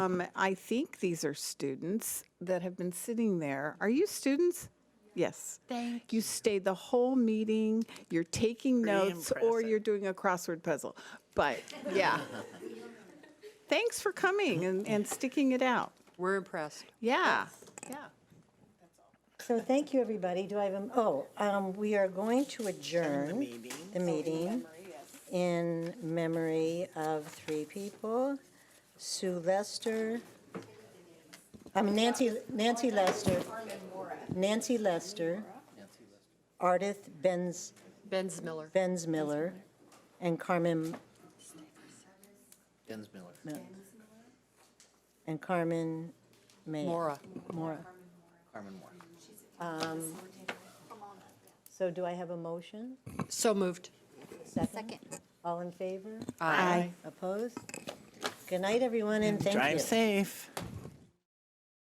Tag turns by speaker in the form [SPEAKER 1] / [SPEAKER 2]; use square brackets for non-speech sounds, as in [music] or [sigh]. [SPEAKER 1] Um, I think these are students that have been sitting there. Are you students? Yes.
[SPEAKER 2] Thank
[SPEAKER 1] you. stayed the whole meeting, you're taking notes, or
[SPEAKER 3] impressive.
[SPEAKER 1] you're doing a crossword puzzle. But,
[SPEAKER 2] [laughs]
[SPEAKER 1] yeah. Thanks for coming and, and sticking it out.
[SPEAKER 2] We're impressed.
[SPEAKER 1] Yeah, yeah.
[SPEAKER 4] So thank you, everybody. Do I have, a oh, um, we are going to adjourn the meeting Oh, in memory of three people. Sue Lester, I mean Nancy, Nancy Lester. Nancy Lester. Ardith Benz,
[SPEAKER 2] Benz Miller.
[SPEAKER 4] Benz Miller, and Carmen,
[SPEAKER 3] Dennis Miller.
[SPEAKER 4] and Carmen May.
[SPEAKER 2] Mora.
[SPEAKER 4] Mora.
[SPEAKER 3] Carmen Moore.
[SPEAKER 4] So do I have a motion?
[SPEAKER 2] So moved.
[SPEAKER 4] Second. All in favor?
[SPEAKER 1] Aye.
[SPEAKER 4] Opposed? Good night, everyone, and thank you.
[SPEAKER 3] Drive safe.